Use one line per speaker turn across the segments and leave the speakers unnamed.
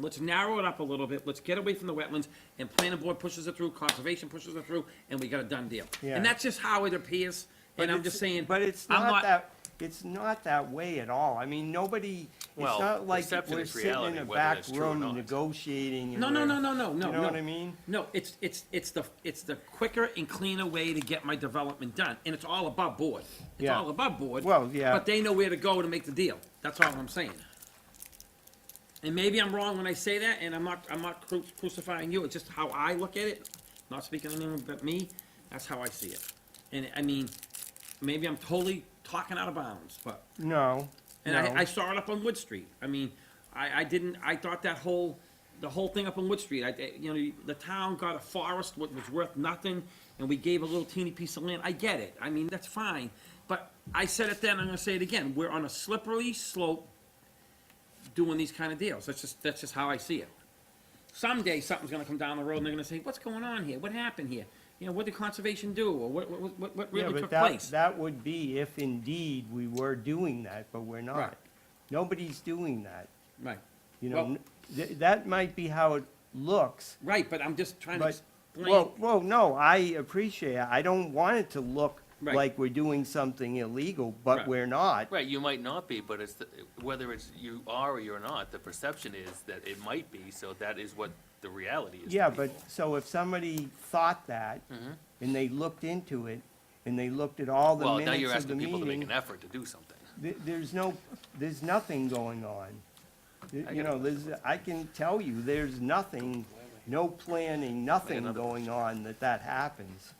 Let's narrow it up a little bit, let's get away from the wetlands, and planning board pushes it through, conservation pushes it through, and we got a done deal.
Yeah.
And that's just how it appears,
But
and I'm
it's-
just saying.
But it's
I'm
not that, it's not that way at all. I mean, nobody, it's
Well,
not like
perception
we're
is
sitting in
reality,
a
whether
back
it's true or
room
not.
negotiating. and
No, no, no,
we're-
no, no, no.
You know
no.
what I mean?
No, it's, it's, it's the, it's the quicker and cleaner way to get my development done, and it's all above board. It's
Yeah.
all above board.
Well, yeah.
But they know where to go to make the deal, that's all I'm saying. And maybe I'm wrong when I say that, and I'm not, I'm not cru- crucifying you, it's just how I look at it, not speaking to anyone but me, that's how I see it. And, I mean, maybe I'm totally talking out of bounds, but
No,
and
no.
I, I saw it up on Wood Street. I mean, I, I didn't, I thought that whole, the whole thing up on Wood Street, I, I- you know, the town got a forest what was worth nothing, and we gave a little teeny piece of land. I get it. I mean, that's fine. But I said it then, I'm gonna say it again. We're on a slippery slope doing these kind of deals. That's just, that's just how I see it. Someday, something's gonna come down the road, and they're gonna say, what's going on here? What happened here? You know, what did conservation do, or what, what, what- what
Yeah,
really
but
took
that-
place?
That would be if indeed we were doing that, but we're not.
Right.
Nobody's doing that,
Right.
you know?
Well-
n- th- That might be how it looks,
Right, but I'm just trying to
But,
explain.
well, well, no, I appreciate, it. I don't want it to look
Right.
like we're doing something illegal,
Right.
but we're not.
Right, you might not be, but it's, the- whether it's you are or you're not, the perception is that it might be, so that is what the reality is. to
Yeah, but,
people.
so if somebody thought that,
Mm-hmm.
and they looked into it, and they looked at all the
Well, now you're
minutes of the
asking people to make
meeting,
an effort to do something.
th- there's no, there's nothing going on. Th-
I
You
got
know, there's, I can tell you, there's nothing, no planning, nothing
another
going on that that happens.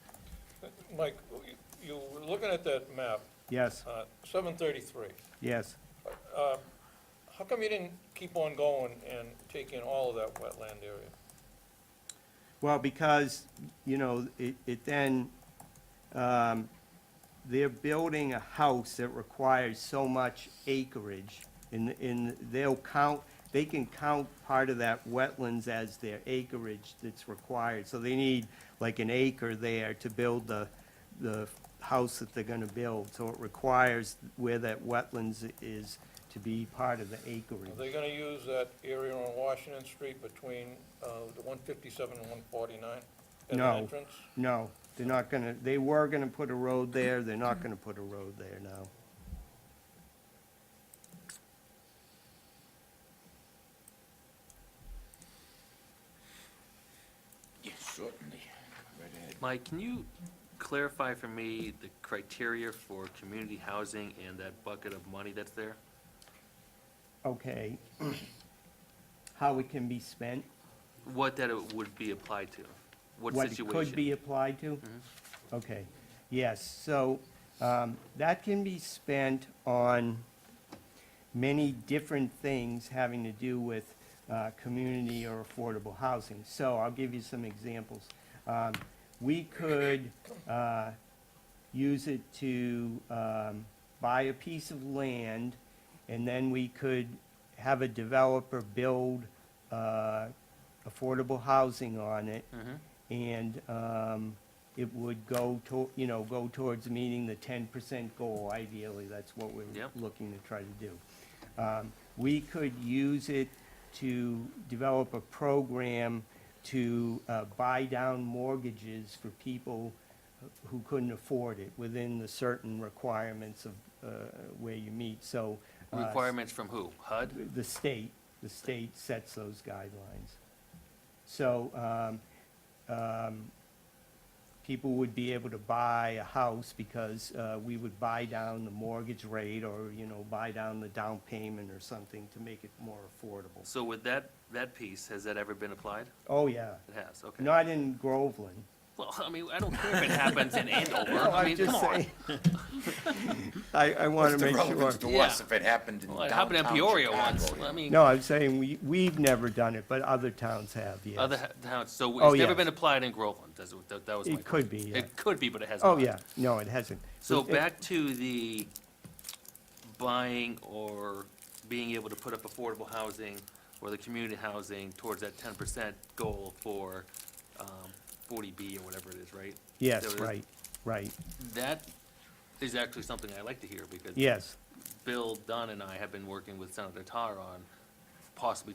Mike, you- you were looking at that map,
Yes,
uh, 733.
yes.
How come you didn't keep on going and take in all of that wetland area?
Well, because, you know, it, it then, um, they're building a house that requires so much acreage, and, and they'll count, they can count part of that wetlands as their acreage that's required, so they need like an acre there to build the, the house that they're gonna build, so it requires where that wetlands is to be part of the
Are
acreage.
they going to use that area on Washington Street between uh, the 157 and 149? as an
No.
entrance?
No, they're not gonna, they were gonna put a road there, they're not gonna put a road there now.
Mike, can you clarify for me the criteria for community housing and that bucket of money that's there?
Okay. How it can be spent,
What that it would be applied to? What
what it
situation? Mm-hmm.
could be applied to? Okay, yes, so, um, that can be spent on many different things having to do with, uh, community or affordable housing. So I'll give you some examples. Um, we could, uh, use it to um, buy a piece of land, and then we could have a developer build uh, affordable housing on it.
Mm-hmm.
And um, it would go to, you know, go towards meeting the ten percent goal ideally. That's what we're
Yep.
looking to try to do. Um, We could use it to develop a program to uh, buy down mortgages for people who couldn't afford it within the certain requirements of uh, where you meet, so. uh,
Requirements from who? HUD?
The state, the state sets those guidelines. So um, um, people would be able to buy a house because uh, we would buy down the mortgage rate or, you know, buy down the down payment or something to make it more affordable.
So with that, that piece, has that ever been applied?
Oh, yeah.
It has, okay.
Not in Groveland.
Well, I mean, I don't care if it happens in Andover, I mean, come on.
I, I want
What's
to
the
make sure.
relevance to us
Yeah.
if it happened in
Well, it happened in
downtown
Peoria once,
Chicago?
I mean,
No, I'm saying we, we've never done it, but other towns have, yes.
other ha- towns, so
Oh,
it's never
yes.
been applied in Groveland, that's what- that that was my
It could be,
question.
yeah.
It could be, but it hasn't.
Oh,
been.
yeah, no, it hasn't.
So
It- it-
back to the buying or being able to put up affordable housing or the community housing towards that ten percent goal for um, forty B or whatever it is, right?
Yes,
So
right, right,
That is actually something I like to hear because
yes.
Bill Dunn and I have been working with Senator Tar on possibly